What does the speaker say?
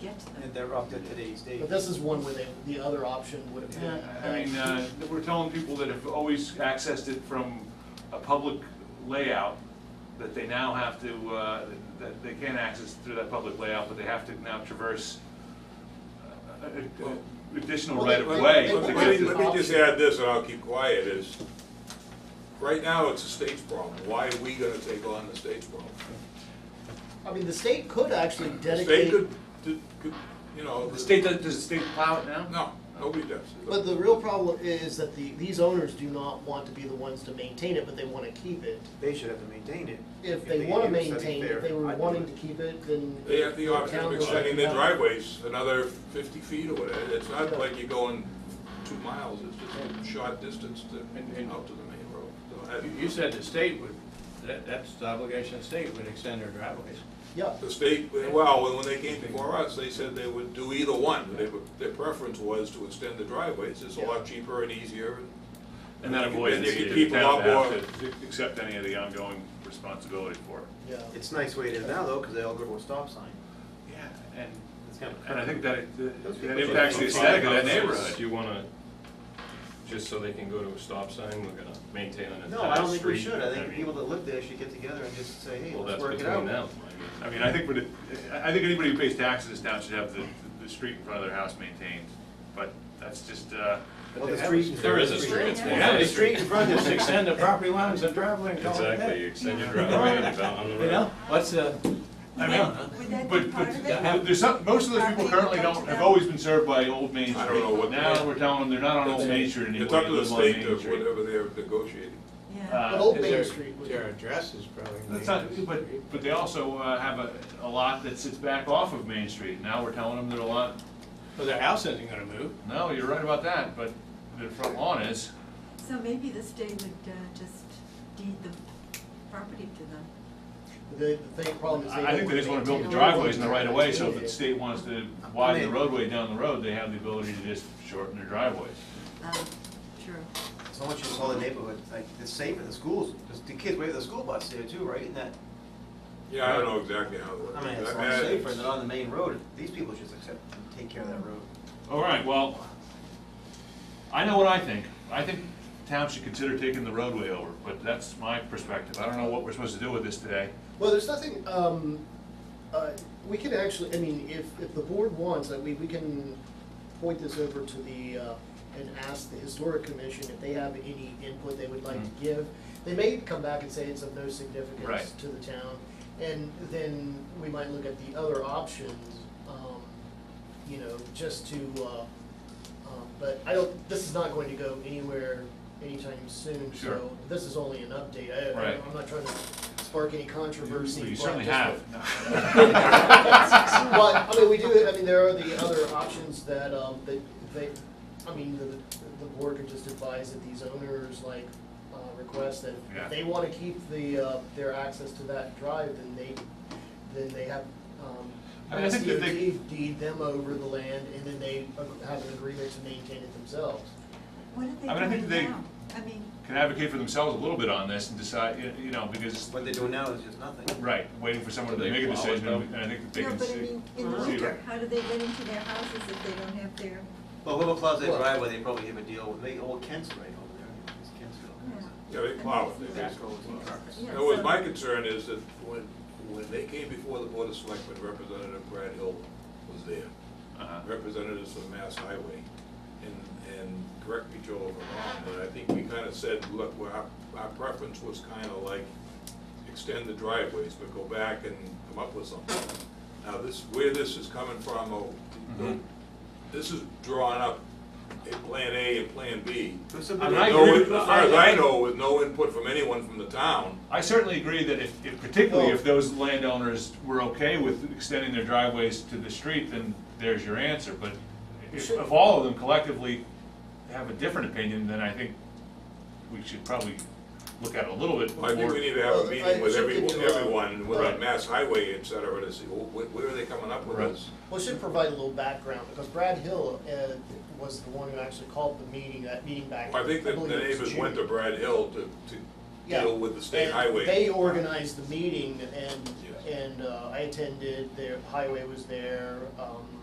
get to them. and they're up to today's date. But this is one where the, the other option would have been. I mean, uh, we're telling people that have always accessed it from a public layout, that they now have to, uh, that they can't access through that public layout, but they have to now traverse uh, uh, uh, additional Well, they- right of well, way. they- to Let me- get let me, to- let me just add this, and I'll keep quiet, is, right now, it's a state's problem, why are we gonna take on the state's problem? I mean, the state could actually The state dedicate, could, d- could, you know. The state, does does the state plow it now? No, nobody does. but the real problem is that the, these owners do not want to be the ones to maintain it, but they wanna keep it. They should have to maintain it. If they wanna do something maintain, fair, if they were I'd do wanting it. to keep it, then. They have the option town of goes extending their out. driveways another fifty feet or whatever, it's not like you're going two miles, it's just a short distance to, And- and- out to the main road. So You- I- You said the state would, that, that's the obligation of the state, would extend their driveways. Yeah, The state, well, when they came before us, they said they would do either one. They would- Their preference was to extend the driveways. It's a lot cheaper and easier. And that avoids And the you could keep a town lot more- have to accept any of the ongoing responsibility for it. yeah. It's nice way it is now though, because they all go to a stop sign. Yeah, and, It's kind of and I crazy. think that it- Those that people impacts the should- aesthetic of that Five houses, neighborhood. You wanna, just so they can go to a stop sign, we're gonna maintain an entire street? No, I don't think we should. I think the mean, people that live there should get together and just say, hey, Well, let's that's work it between out. them. I I mean, mean, I think, we'd- I I think anybody who pays taxes in this town should have the, the street in front of their house maintained, but that's just, uh, Well, the street. in There front of is the a street. street, it's Yeah, one the way. street in front of Just the extend the property lines and driveway and call it that. Exactly, you extend your driveway and about on the You know, road. what's the, I mean, Would that be but, part of Yeah. it? but, there's some, most of those people currently don't, have always been served by Old Main Street. I don't know what- Now, we're telling them they're not on Old Main Street anymore. It's up to they the live on state Main to Street. whatever they're negotiating. Uh, But Old is Main there- Street would. their address is probably. That's not, but, but they also uh, have a, a lot that sits back off of Main Street, now we're telling them that a lot, Well, their house isn't gonna move. no, you're right about that, but their front lawn is. So maybe the state would uh, just deed the property to them. The, the thing, problem is they. I I think they just wanna build the driveways in the right of way, so if the state wants to widen the roadway down the road, they have the ability to just shorten their driveways. Um, True. So much just all the neighborhood, like, it's safe at the schools, because the kids wait for the school bus there too, right? And that, Yeah, I don't know exactly how it works. I mean, it's a Uh, lot safer than on the main road. These people should accept and take care of that road. All right, well, I know what I think, I think town should consider taking the roadway over, but that's my perspective, I don't know what we're supposed to do with this today. Well, there's nothing, um, uh, we can actually, I mean, if, if the board wants, I mean, we can point this over to the, uh, and ask the historic commission if they have any input they would like to give. They may come back and say it's of no significance Mm-hmm. Right. to the town, and then we might look at the other options, um, you know, just to, uh, um, but I don't, this is not going to go anywhere anytime soon, Sure. so this is only an update. I- I, Right. I'm not trying to spark any controversy Well, You but certainly just- have. But, I mean, we do, I mean, there are the other options that, um, that they, I mean, the, the board could just advise that these owners, like, uh, request that Yeah. if they wanna keep the, uh, their access to that drive, then they, then they have, um, I mean, I think that they- SDOT deed them over the land, and then they ag- have an agreement to maintain it themselves. What are they I mean, I think doing they- now? I mean, Can advocate for themselves a little bit on this and decide, you- you know, because, What they're doing now is just nothing. right, waiting for someone to They make a plow it, decision, though. and I think that they no, can but I see. mean, in the see- winter, how do they get into their houses if they don't have their, Well, whoever plows their Well- driveway, they probably have a deal with, they, old Kent's right over there. It's Kentsville. Yeah, they plow it, they Yeah. basically plow it. Yeah, In other words, so- my concern is that when, when they came before the Board of Selectmen, Representative Brad Hill was there. Uh-huh. representatives from Mass Highway, and, and correct me, Joel, if I'm wrong, but I think we kind of said, look, well, our, our preference was kind of like extend the driveways, but go back and come up with something. Now, this, where this is coming from, oh, Mm-hmm. this is drawing up a plan A and plan B. But With some people- I no- agree with- As far as I know, with no input from anyone from the town, I certainly agree that if, if particularly if those landowners were okay with extending their driveways to the street, then there's your answer, but if, if all of them collectively have a different opinion, then I think we should probably look at it a little bit I think more- we need to have a meeting with every, everyone, um, Right. with Mass Highway, et cetera, to see, well, wh- where are they coming up with Right. this? Well, it should provide a little background, because Brad Hill, uh, was the one who actually called the meeting, that meeting back. I think that the believe it was neighbors went June. to Brad Hill to, to Yeah. deal with the state And highway. They organized the meeting and, Yes. and uh, I attended, their highway was there, um,